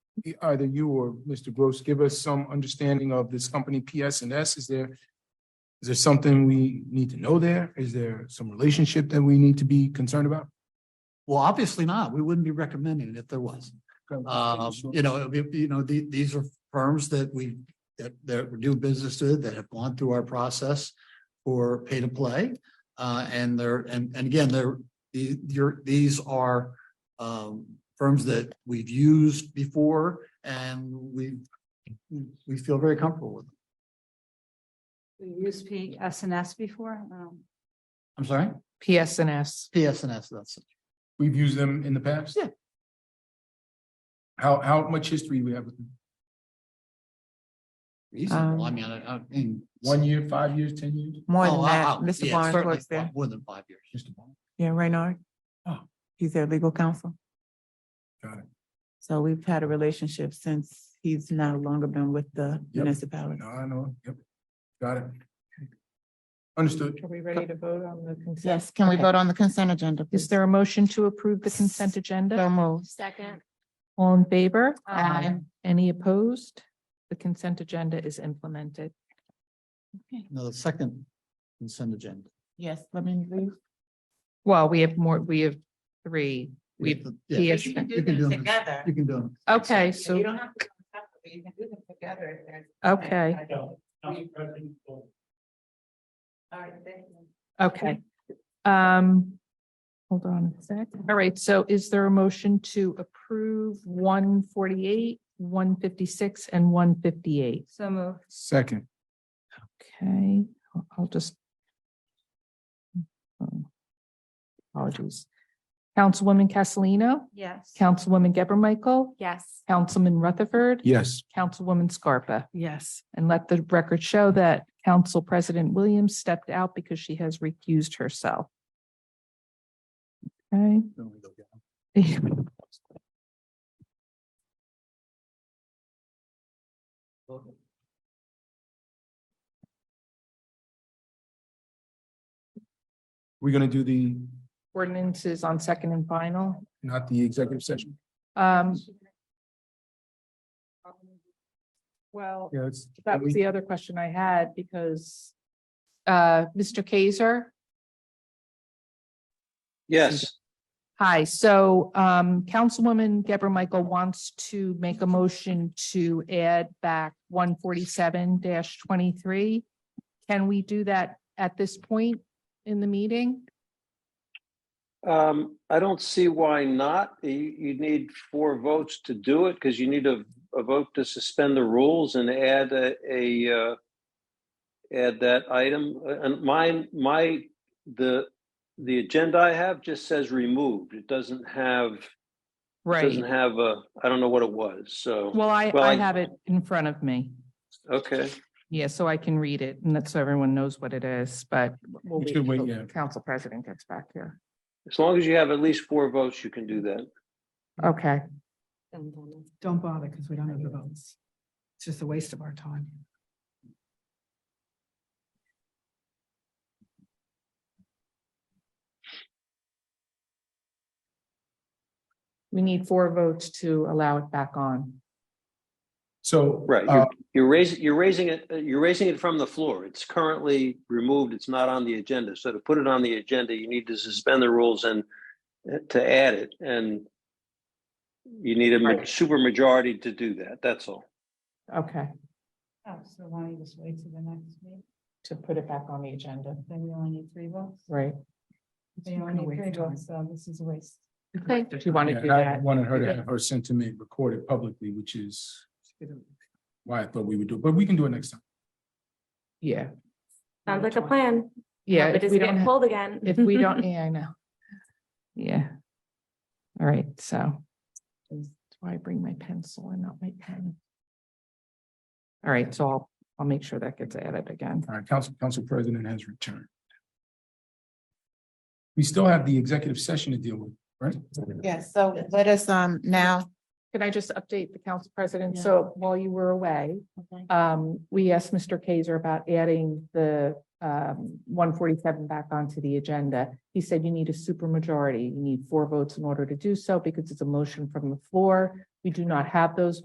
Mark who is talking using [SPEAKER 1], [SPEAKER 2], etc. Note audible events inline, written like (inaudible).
[SPEAKER 1] either you or Mr. Gross give us some understanding of this company PS and S? Is there, is there something we need to know there? Is there some relationship that we need to be concerned about?
[SPEAKER 2] Well, obviously not. We wouldn't be recommending it if there was. Um, you know, it'd be- you know, the, these are firms that we, that, that we do business with, that have gone through our process for pay to play. Uh, and they're, and, and again, they're, the, your, these are, um, firms that we've used before and we, we feel very comfortable with. them.
[SPEAKER 3] We used P S and S before. um,
[SPEAKER 2] I'm sorry,
[SPEAKER 4] PSNS.
[SPEAKER 2] PSNS, that's,
[SPEAKER 1] We've used them in the past?
[SPEAKER 2] Yeah.
[SPEAKER 1] How, how much history we have with them?
[SPEAKER 2] reasonable. I
[SPEAKER 4] Um,
[SPEAKER 2] mean, I, I mean.
[SPEAKER 1] One year, five years, ten years?
[SPEAKER 4] More
[SPEAKER 2] Oh,
[SPEAKER 4] than
[SPEAKER 2] I-
[SPEAKER 4] that,
[SPEAKER 2] I-
[SPEAKER 4] Mr.
[SPEAKER 2] yeah,
[SPEAKER 4] Barnes
[SPEAKER 2] certainly
[SPEAKER 4] works there.
[SPEAKER 2] More than five years.
[SPEAKER 1] Mr. Barnes.
[SPEAKER 4] Yeah, Reynard.
[SPEAKER 1] Oh.
[SPEAKER 4] He's their legal counsel.
[SPEAKER 1] Got it.
[SPEAKER 4] So we've had a relationship since he's no longer been with the
[SPEAKER 1] Yep.
[SPEAKER 4] municipality.
[SPEAKER 1] No, I know, yep, got it. Understood.
[SPEAKER 5] Are we ready to vote on the consent?
[SPEAKER 4] Yes, can we
[SPEAKER 5] Okay.
[SPEAKER 4] vote on the consent agenda?
[SPEAKER 5] Is
[SPEAKER 4] please?
[SPEAKER 5] there a motion to approve the consent agenda?
[SPEAKER 4] So moved.
[SPEAKER 3] Second.
[SPEAKER 5] All in favor?
[SPEAKER 3] Aye. Aye.
[SPEAKER 5] Any opposed? The consent agenda is implemented.
[SPEAKER 2] No, the second consent agenda.
[SPEAKER 4] Yes, let me leave.
[SPEAKER 5] Well, we have more, we have three.
[SPEAKER 2] We
[SPEAKER 5] We,
[SPEAKER 2] have to- yeah,
[SPEAKER 5] P S.
[SPEAKER 4] You can
[SPEAKER 2] You
[SPEAKER 4] do
[SPEAKER 2] can do
[SPEAKER 4] them
[SPEAKER 2] them.
[SPEAKER 4] together.
[SPEAKER 2] You can do them.
[SPEAKER 5] Okay, so,
[SPEAKER 4] You don't have to. do them separately. You can do them together if there's-
[SPEAKER 5] okay,
[SPEAKER 4] All right, thank you.
[SPEAKER 5] okay. Um, hold on a sec. All right, so is there a motion to approve one forty-eight, one fifty-six, and one fifty-eight?
[SPEAKER 3] So moved.
[SPEAKER 1] Second,
[SPEAKER 5] Okay, I'll- I'll just. Oh, Apologies. Councilwoman Castellino,
[SPEAKER 3] Yes.
[SPEAKER 5] Councilwoman Geber Michael,
[SPEAKER 3] Yes.
[SPEAKER 5] Councilman Rutherford,
[SPEAKER 1] yes,
[SPEAKER 5] Councilwoman Scarpa.
[SPEAKER 4] Yes.
[SPEAKER 5] And let the record show that Council President Williams stepped out because she has recused herself. Okay. (laughs)
[SPEAKER 2] Then we go get them.
[SPEAKER 1] we're gonna do the,
[SPEAKER 5] Ordinances on second and final.
[SPEAKER 1] not the executive session.
[SPEAKER 5] Um, Well,
[SPEAKER 1] Yeah, it's.
[SPEAKER 5] That was the other question I had because uh, Mr. Kaiser,
[SPEAKER 6] Yes,
[SPEAKER 5] hi, so um, Councilwoman Geber Michael wants to make a motion to add back one forty-seven twenty-three. Can we do that at this point in the meeting?
[SPEAKER 6] um, I don't see why not. You, you need four votes to do it because you need a, a vote to suspend the rules and add a, a, uh, add that item. And mine, my, the, the agenda I have just says removed. It doesn't have, it doesn't have a, I don't know what it was. So,
[SPEAKER 5] Well, I,
[SPEAKER 6] Well,
[SPEAKER 5] I
[SPEAKER 6] I-
[SPEAKER 5] have it in front of me.
[SPEAKER 6] okay.
[SPEAKER 5] Yeah, so I can read it and that's so everyone knows what it is, but we'll
[SPEAKER 1] We
[SPEAKER 5] wait
[SPEAKER 1] should wait,
[SPEAKER 5] till
[SPEAKER 1] yeah.
[SPEAKER 5] the Council President gets back here.
[SPEAKER 6] As long as you have at least four votes, you can do that.
[SPEAKER 5] Okay.
[SPEAKER 7] Don't bother because we don't have the votes. It's just a waste of our time.
[SPEAKER 5] We need four votes to allow it back on.
[SPEAKER 1] So.
[SPEAKER 6] Right.
[SPEAKER 1] uh,
[SPEAKER 6] You're raising, you're raising it, uh, you're raising it from the floor. It's currently removed. It's not on the agenda. So to put it on the agenda, you need to suspend the rules and uh, to add it and you need a super majority to do that. That's all.
[SPEAKER 5] Okay,
[SPEAKER 3] Oh, so why don't you just wait till the next meeting?
[SPEAKER 5] to put it back on the agenda,
[SPEAKER 3] Then we only need three votes.
[SPEAKER 5] right?
[SPEAKER 3] We only need three votes, so this is a waste.
[SPEAKER 5] Okay. Do you want to do
[SPEAKER 1] yeah, I
[SPEAKER 5] that?
[SPEAKER 1] wanted her to have her sentiment recorded publicly, which is why I thought we would do, it. but we can do it next time.
[SPEAKER 5] Yeah,
[SPEAKER 8] Sounds like a plan.
[SPEAKER 5] yeah.
[SPEAKER 8] But
[SPEAKER 5] if
[SPEAKER 8] it's
[SPEAKER 5] we don't
[SPEAKER 8] getting
[SPEAKER 5] ha-
[SPEAKER 8] pulled again.
[SPEAKER 5] If we
[SPEAKER 8] (laughs)
[SPEAKER 5] don't, yeah, I know. Yeah. All right, so. That's why I bring my pencil and not my pen. All right, so I'll, I'll make sure that gets added again.
[SPEAKER 1] All right, council, council president has returned. We still have the executive session to deal with, right?
[SPEAKER 4] Yes, so let us um now.
[SPEAKER 5] Can I just update the council president?
[SPEAKER 4] Yeah.
[SPEAKER 5] So while you were away, um, we asked Mr. Kaiser about adding the um one forty-seven back onto the agenda. He said you need a supermajority. You need four votes in order to do so because it's a motion from the floor. We do not have those